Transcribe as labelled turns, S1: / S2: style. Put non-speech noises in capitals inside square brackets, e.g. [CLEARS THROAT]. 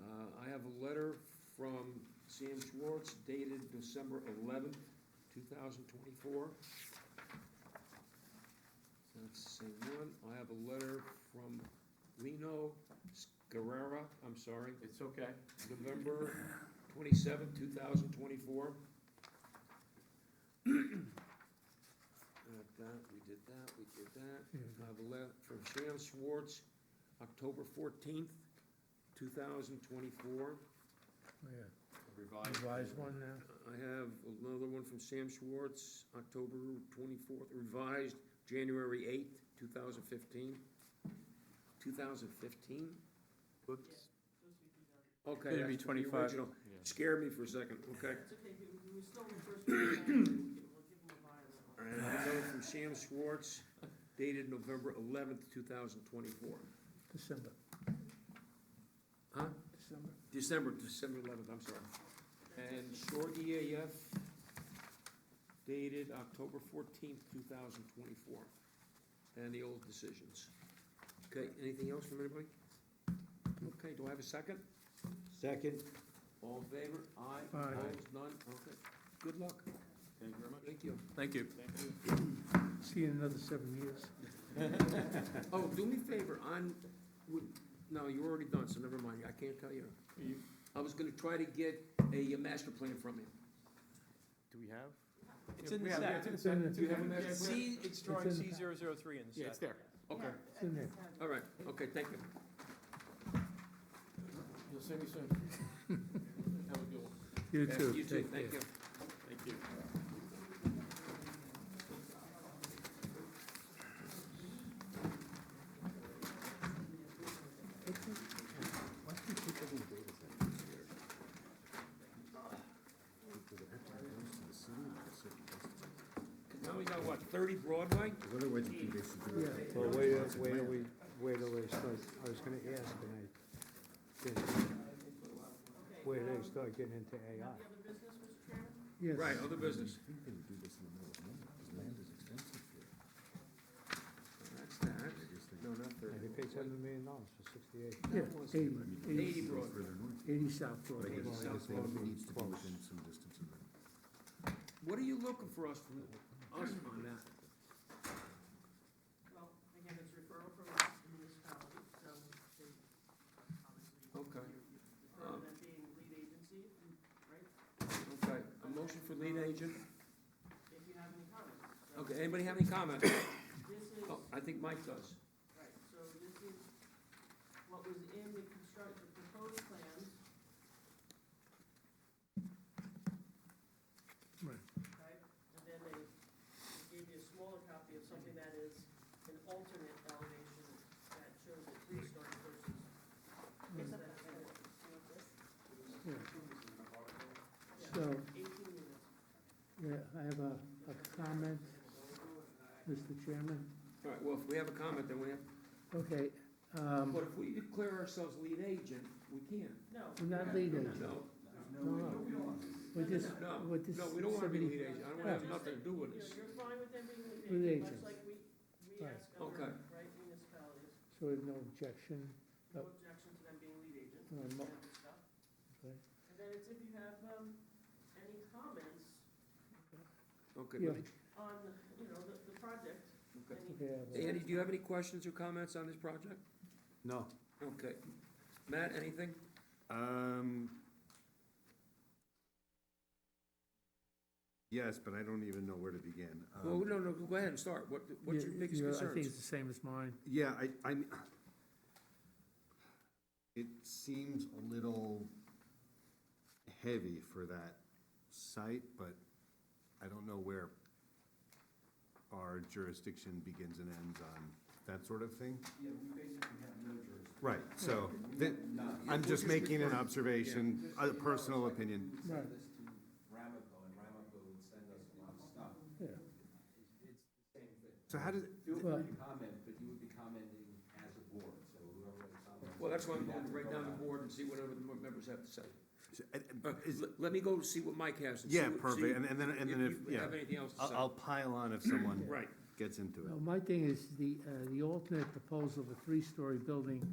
S1: Uh, letter from Sam Schwartz dated December eleventh, two thousand twenty-four. That's the same one. I have a letter from Lino Scarrera, I'm sorry,
S2: It's okay.
S1: November twenty-seventh, two thousand twenty-four. [CLEARS THROAT] that, we did that, we did that. I have a letter from Sam Schwartz, October fourteenth, two thousand twenty-four.
S3: yeah.
S2: Revised.
S3: Revised one uh, now?
S1: I have another one from Sam Schwartz, October twenty-fourth, revised, January eighth, two thousand fifteen. Two thousand fifteen?
S4: Whoops.
S1: Okay.
S4: Maybe
S1: that's the
S4: 25.
S1: original.
S2: Yeah.
S1: Scared me for a second, okay.
S5: It's okay, we, we were still in the first round, we'll give we'll give them a buy on that one.
S1: And another from Sam Schwartz, dated November eleventh, two thousand twenty-four.
S3: December.
S1: Huh?
S3: December.
S1: December, December eleventh, I'm sorry. And short EAF dated October fourteenth, two thousand twenty-four, and the old decisions. Okay, anything else from anybody? Okay, do I have a second?
S4: Second.
S1: All in favor? Aye.
S3: Aye.
S1: Opposed? None? Okay. Good luck.
S2: Thank you very much.
S1: Thank you.
S4: Thank you.
S3: See you in another seven years.
S1: Oh, do me a favor, on, would- no, you're already done, so never mind, I can't tell you.
S2: You-
S1: I was gonna try to get a uh, master plan from you.
S2: Do we have?
S4: It's in the
S2: Yeah,
S4: stack.
S2: It's in the stack.
S3: It's in the-
S2: Do you have a
S3: Yeah,
S2: master
S3: it's-
S2: plan?
S4: C, it's drawing
S3: It's in
S4: C
S3: the-
S4: zero zero three in the
S2: Yeah, it's
S4: stack.
S2: there.
S1: Okay,
S5: Yeah,
S3: It's in there.
S5: it's had-
S1: all right, okay, thank you.
S2: You'll see me soon.
S1: [LAUGHS]
S2: Have a good one.
S3: You
S1: Yeah,
S3: too.
S1: You too,
S3: Take care.
S1: thank you.
S2: Thank you.
S1: Now we got what, thirty Broadway?
S3: Yeah.
S6: Well, wait, a- wait, till we, wait, till they start, I was gonna ask, and I didn't. Wait, till they start getting into AI.
S5: The other business, Mr. Chairman?
S1: Right,
S3: Yes.
S1: other business. That's that. No, not
S6: And
S1: thirty.
S6: They paid seven million dollars for sixty-eight.
S3: Yeah,
S1: That was-
S3: eighty,
S1: Eighty
S3: eighty,
S1: Broadway.
S3: eighty South Broadway.
S1: Eighty South Broadway. What are you looking for us from, us on that?
S5: Well, again, it's referral from us, the municipality, so they obviously.
S1: Okay.
S5: you- you prefer
S1: Um,
S5: that being lead agency, right?
S1: Okay, a motion for lead agent.
S5: If you have any comments. So
S1: Okay, anybody have any comments?
S5: This is,
S1: Oh, I think Mike does.
S5: right, so this is what was in the construct, the proposed plans,
S3: Right.
S5: right? And then they gave you a smaller copy of something that is an alternate elevation that shows a three-story versus.
S3: Mm.
S5: that four.
S3: Yeah. So,
S5: Eighteen units.
S3: yeah, I have a, a comment, Mr. Chairman.
S1: All right, well, if we have a comment, then we have,
S3: Okay, um,
S1: but if we declare ourselves lead agent, we can.
S5: No.
S3: we're not leading.
S1: No,
S3: No, no. We're just,
S1: no,
S3: we're just.
S1: no, we don't wanna be
S3: submitting-
S1: lead agent. I don't wanna have nothing to do with
S5: You
S1: this.
S5: know, you're fine with them being
S3: Lead
S5: lead agent,
S3: agents.
S5: much like we, we
S3: Right.
S5: ask other,
S1: Okay.
S5: right, municipalities,
S3: So we have no objection,
S5: no
S3: Yep.
S5: objection to them being lead agents,
S3: No,
S5: and
S3: mo-
S5: that stuff.
S3: okay?
S5: And then it's if you have, um, any comments
S1: Okay,
S3: Yeah.
S1: let me-
S5: on, you know, the, the project,
S1: okay.
S5: any,
S3: Okay, I have a-
S1: Andy, do you have any questions or comments on this project?
S6: No.
S1: Okay. Matt, anything?
S7: Um. Yes, but I don't even know where to begin.
S1: Well,
S7: Um,
S1: no, no, go ahead and start. What, what's your
S3: Yeah,
S1: biggest
S3: yeah, I think it's
S1: concerns?
S3: the same as mine.
S7: Yeah, I, I. It seems a little heavy for that site, but I don't know where our jurisdiction begins and ends on that sort of thing.
S8: Yeah, we basically have no jurisdiction.
S7: Right, so,
S8: We
S7: that,
S8: have none.
S7: I'm
S1: We're
S7: just
S1: just
S7: making an
S1: referring-
S7: observation,
S8: Just so
S7: a
S8: you know,
S7: personal
S8: it's like
S7: opinion.
S8: We send
S3: Right.
S8: this to Ramapo, and Ramapo would send us a lot of stuff.
S3: Yeah.
S8: It's the same thing.
S7: So how does,
S8: Feel
S3: Well-
S8: free to comment, but you would be commenting as a board, so whoever comments.
S1: Well, that's why I'm
S8: you'd have
S1: going
S8: to
S1: right
S8: go
S1: down the
S8: out.
S1: board and see whatever the members have to say.
S7: So, uh,
S1: Uh,
S7: uh, is-
S1: le- Let me go see what Mike has. and see
S7: Yeah,
S1: what- see
S7: perfect, and and then, and then if,
S1: you
S7: yeah,
S1: have anything else to
S7: I'll
S1: say.
S7: I'll pile on if someone
S1: Right.
S7: gets into
S3: Well,
S7: it.
S3: my thing is, the, uh, the alternate proposal of a three-story building